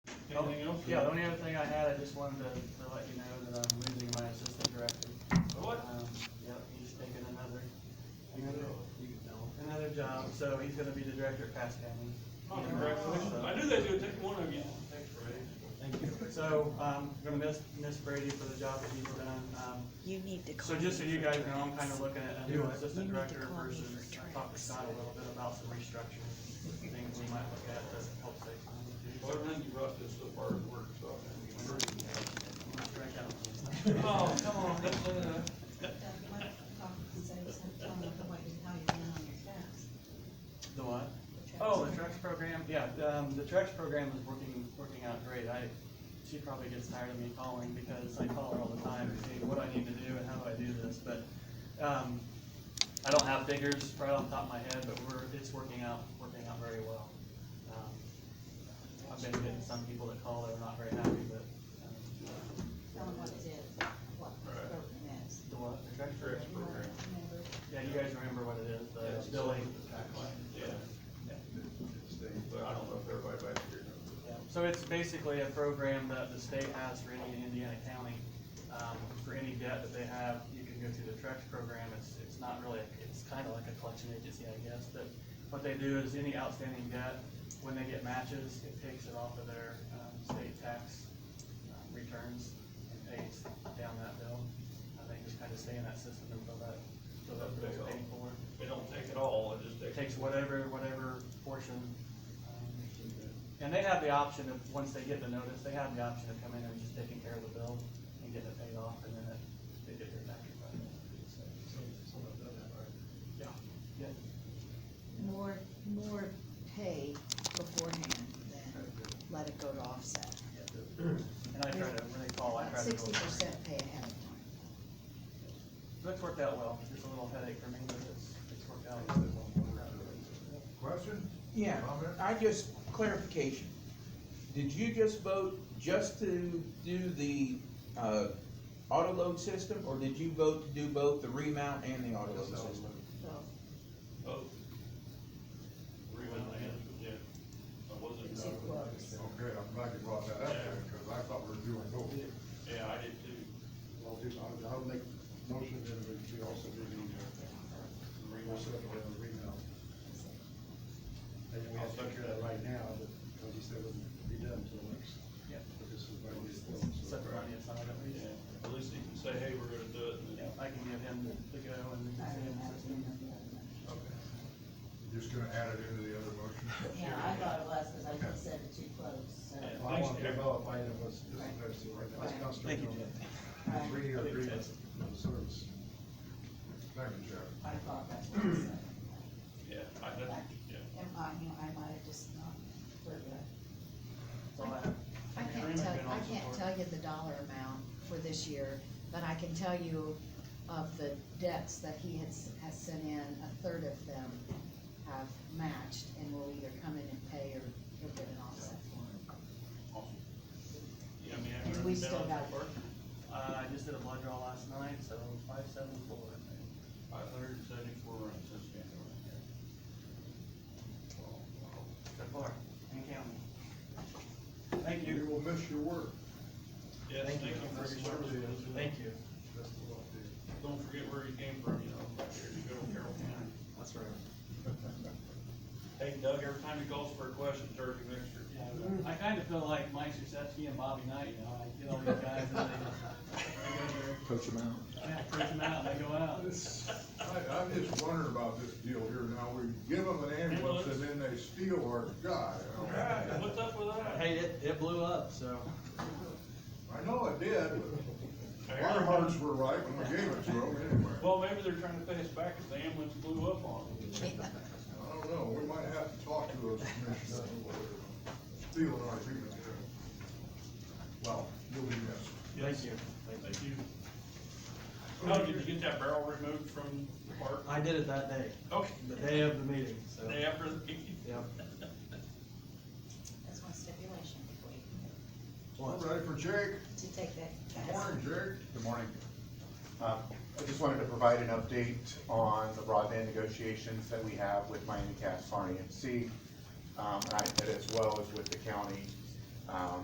Anything else? Yeah, the only other thing I had, I just wanted to, to let you know that I'm losing my assistant director. What? Um, Yep, he's taking another, another, another job, so he's gonna be the director at Cass County. Oh, Congratulations. I knew they would take one of you. Thanks, Ray. Thank you. So, um, gonna miss, miss Brady for the job that he's done, um, You need to So call. just so me you for guys drinks. know, I'm kind of looking at a new assistant You need to director call me versus uh, for drinks. talk to Scott a little bit about some restructuring things we might look at that help save money. Well, everything you brought this so far has worked, so I'm gonna be pretty. I'm not sure I got it. Oh, come on, let's, uh, The what? Oh, the Trex program, yeah, um, the Trex program is working, working out great, I, she probably gets tired of me calling, because I call her all the time, to see what I need to do and how do I do this, but, um, I don't have figures right off the top of my head, but we're, it's working out, working out very well. Um, I've been getting some people that call that are not very happy, but, um, the what, the Trex program? Yeah, you guys remember what it is, the billing. Yeah, Yeah. but I don't know if everybody back here knows. Yeah, So it's basically a program that the state has for any Indiana county. Um, For any debt that they have, you can go through the Trex program. It's, it's not really, it's kind of like a collection agency, I guess. But what they do is any outstanding debt, when they get matches, it takes it off of their um, state tax um, returns and pays down that bill. And they just kind of stay in that system until that, until that bill's paid for. They don't take it all, it just It takes. takes whatever, whatever portion. um, And they have the option of, once they get the notice, they have the option of coming in and just taking care of the bill and getting it paid off and then it- they get their tax refund. Yeah, yeah, More, more pay beforehand than let it go to offset. and I try to really call, Oh, I try to. go Sixty over it. percent pay ahead of time. So it's worked out well, just a little headache for me, but it's, it's worked out. really well. Question? Yeah, I just, clarification. Did you just vote just to do the, uh, auto load system, or did you vote to do both the remount and the auto load system? So, Oh. Rebound and, yeah. I wasn't. Too close. Okay, I'm glad you brought that up there, because I thought we were doing both. Yeah, I did too. I'll do, I'll, I'll make motion that we also do the, uh, also have a renown. And we have to do that right now, but, like you said, it wouldn't be done until next, Yeah, but this is by this bill, so. set the money aside at least. Yeah, at least you can say, hey, we're gonna do it, and Yeah, then, I can give him the go and we I can see don't him have system. any of that. Just gonna add it into the other motion? Yeah, I thought it was, cause I just said it too close, so. Well, I want to develop, I know what's, this is actually right now, let's concentrate Thank you, on Jeff. the three-year agreement of service. Thank you, Jeff. I thought that's what I said. yeah, I, that, yeah. Am I, you know, I might have just not heard that. That's all I have. I can't Agreement tell, been I on can't support. tell you the dollar amount for this year, but I can tell you of the debts that he has, has sent in, a third of them have matched and will either come in and pay or, or get an offset for Yeah, I mean, And I've we been still down got- so far, Uh, I just did a blood draw last night, so five seven four, I think. five hundred and seventy-four runs since January. So far, and counting. Thank you. will miss your work. Yes, thank you for your That's what service. it is. Thank you. That's the law, dude. Don't forget where you came from, you know, back here in good old Carroll County. That's right. Hey Doug, every time he calls for a question, turkey mixture. I kind of feel like Mike Suzeski and Bobby Knight, you know, I get all these guys and they, Coach them out. they go, yeah, print them out, and they go out. I, I'm just wondering about this deal here now, we give them an ambulance and then they steal our guy. I Alright, what's up with that? Hey, it, it blew up, so. don't- I know it did, but our hearts were right when we gave it to them anyway. Well, maybe they're trying to pay us back because the ambulance blew up on them. I don't know, we might have to talk to those commissioners. Stealing our agreement here. Well, you'll be missed. Thank you. Thank you. How did you get that barrel removed from the park? I did it that day, Okay, the day of the meeting, so. day after the Yep. That's my stipulation before you, All ready for Jake? to take that Good task. morning, Jake. Good morning. Uh, I just wanted to provide an update on the broadband negotiations that we have with Miami Cass, Farney, and C, um, and I- and as well as with the county. Um,